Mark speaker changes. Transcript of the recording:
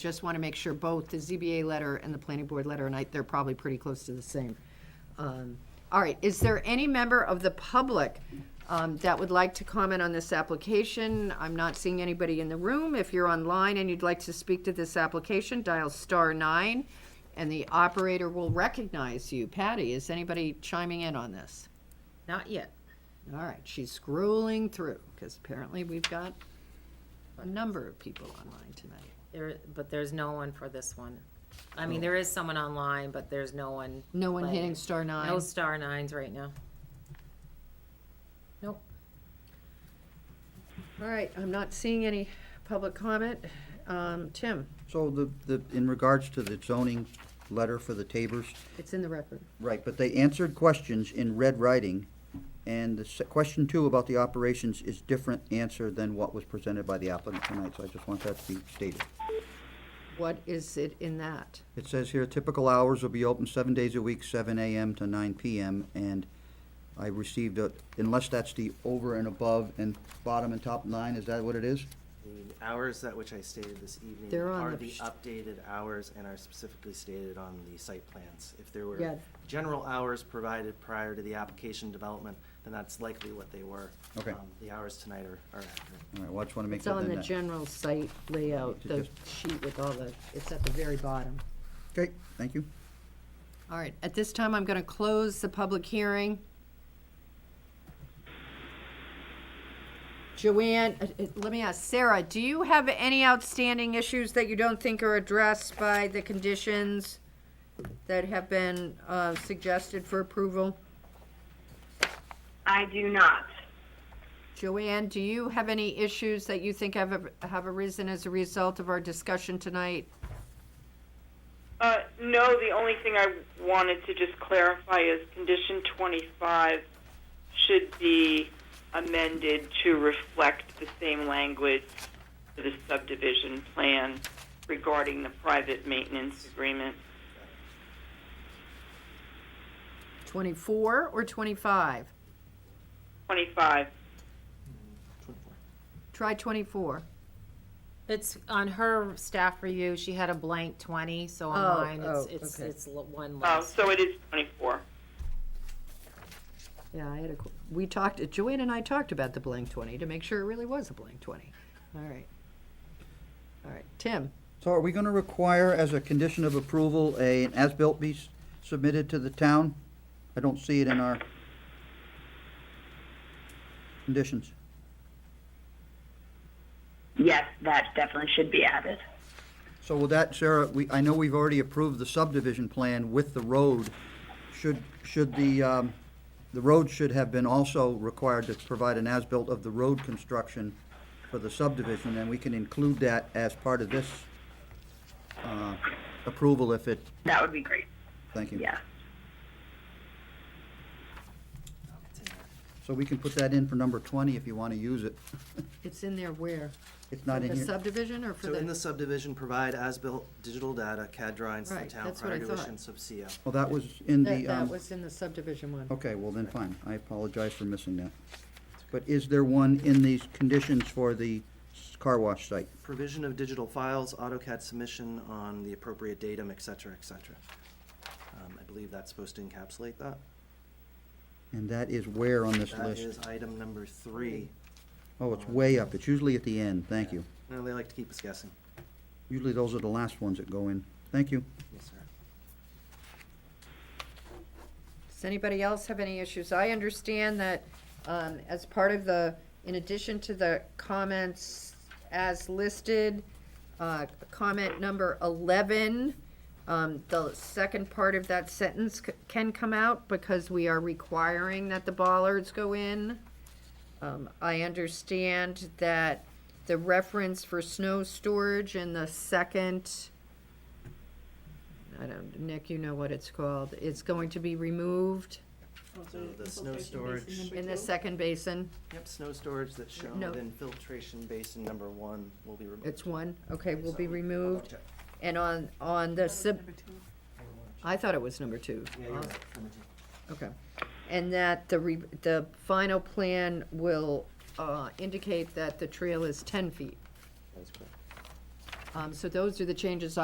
Speaker 1: Just want to make sure both the ZBA letter and the planning board letter, and I, they're probably pretty close to the same. Um, All right, is there any member of the public um, that would like to comment on this application? I'm not seeing anybody in the room. If you're online and you'd like to speak to this application, dial star nine, and the operator will recognize you. Patty, is anybody chiming in on this?
Speaker 2: Not yet.
Speaker 1: All right, she's scrolling through, because apparently we've got a number of people online tonight.
Speaker 2: There, but there's no one for this one. I mean, there is someone online, but there's no one.
Speaker 1: No one
Speaker 2: playing.
Speaker 1: hitting star
Speaker 2: No
Speaker 1: nine?
Speaker 2: star nines right now. Nope.
Speaker 1: All right, I'm not seeing any public comment. Um, Tim,
Speaker 3: So the, the, in regards to the zoning letter for the Tabers,
Speaker 1: it's in the record.
Speaker 3: right, but they answered questions in red writing, and the se- question two about the operations is different answer than what was presented by the applicant tonight, so I just want that to be stated.
Speaker 1: What is it in that?
Speaker 3: It says here, typical hours will be open seven days a week, seven AM to nine PM, and I received a, unless that's the over and above and bottom and top line, is that what it is?
Speaker 4: The hours at which I stated this evening
Speaker 1: They're on
Speaker 4: are
Speaker 1: the
Speaker 4: the
Speaker 1: sh-
Speaker 4: updated hours and are specifically stated on the site plans. If there
Speaker 1: Yeah.
Speaker 4: were general hours provided prior to the application development, then that's likely what they were.
Speaker 3: Okay.
Speaker 4: Um, The hours tonight are, are accurate.
Speaker 3: All right, well, I just wanna make
Speaker 1: It's
Speaker 3: that
Speaker 1: on
Speaker 3: then
Speaker 1: the
Speaker 3: that-
Speaker 1: general site layout,
Speaker 3: To
Speaker 1: the
Speaker 3: just-
Speaker 1: sheet with all the, it's at the very bottom.
Speaker 3: Okay, thank you.
Speaker 1: All right, at this time, I'm going to close the public hearing. Joanne, uh, uh, let me ask, Sarah, do you have any outstanding issues that you don't think are addressed by the conditions that have been uh, suggested for approval?
Speaker 5: I do not.
Speaker 1: Joanne, do you have any issues that you think have, have arisen as a result of our discussion tonight?
Speaker 5: Uh, no, the only thing I wanted to just clarify is condition 25 should be amended to reflect the same language for the subdivision plan regarding the private maintenance agreement.
Speaker 1: 24 or 25?
Speaker 5: 25.
Speaker 4: Twenty-four.
Speaker 1: Try 24.
Speaker 2: It's on her staff review, she had a blank twenty, so on
Speaker 1: Oh,
Speaker 2: mine, it's,
Speaker 1: oh,
Speaker 2: it's,
Speaker 1: okay.
Speaker 2: it's l- one
Speaker 5: Oh,
Speaker 2: less.
Speaker 5: so it is 24.
Speaker 1: Yeah, I had a, qu- we talked, Joanne and I talked about the blank 20 to make sure it really was a blank 20. All right. All right, Tim,
Speaker 3: So are we gonna require as a condition of approval, a, an as-built be s- submitted to the town? I don't see it in our conditions.
Speaker 6: Yes, that definitely should be added.
Speaker 3: So with that, Sarah, we, I know we've already approved the subdivision plan with the road. Should, should the, um, the road should have been also required to provide an as-built of the road construction for the subdivision, and we can include that as part of this, uh, approval if it,
Speaker 6: That would be great.
Speaker 3: thank you.
Speaker 6: Yeah.
Speaker 4: It's in there.
Speaker 3: So we can put that in for number 20 if you want to use it.
Speaker 1: it's in there where?
Speaker 3: It's not in
Speaker 1: The
Speaker 3: here.
Speaker 1: subdivision or for
Speaker 4: So in the
Speaker 1: the?
Speaker 4: subdivision, provide as-built digital data, CAD drawings to the
Speaker 1: Right,
Speaker 4: town
Speaker 1: that's what I
Speaker 4: prior to
Speaker 1: thought.
Speaker 4: issuance of CO.
Speaker 3: Well, that was in
Speaker 1: That,
Speaker 3: the,
Speaker 1: that
Speaker 3: um,
Speaker 1: was in the subdivision one.
Speaker 3: okay, well then, fine. I apologize for missing that. But is there one in these conditions for the s- car wash site?
Speaker 4: Provision of digital files, AutoCAD submission on the appropriate datum, et cetera, et cetera. Um, I believe that's supposed to encapsulate that.
Speaker 3: And that is where on this
Speaker 4: That is
Speaker 3: list?
Speaker 4: item number three.
Speaker 3: Oh, it's way up. It's usually at the end. Thank you.
Speaker 4: No, they like to keep us guessing.
Speaker 3: Usually those are the last ones that go in. Thank you.
Speaker 4: Yes, sir.
Speaker 1: Does anybody else have any issues? I understand that um, as part of the, in addition to the comments as listed, uh, comment number 11, um, the second part of that sentence c- can come out because we are requiring that the bollards go in. Um, I understand that the reference for snow storage in the second. I don't, Nick, you know what it's called. It's going to be removed
Speaker 4: So the snow storage,
Speaker 1: in the second basin.
Speaker 4: yep, snow storage that's shown
Speaker 1: No.
Speaker 4: within filtration basin number one will be removed.
Speaker 1: It's one, okay, will be
Speaker 4: So-
Speaker 1: removed.
Speaker 4: Okay.
Speaker 1: And on, on the sub, I thought it was number two. Uh,
Speaker 4: Yeah, you're right, number two.
Speaker 1: Okay. And that the re, the final plan will, uh, indicate that the trail is ten feet.
Speaker 4: That is correct.
Speaker 1: Um, so those are the changes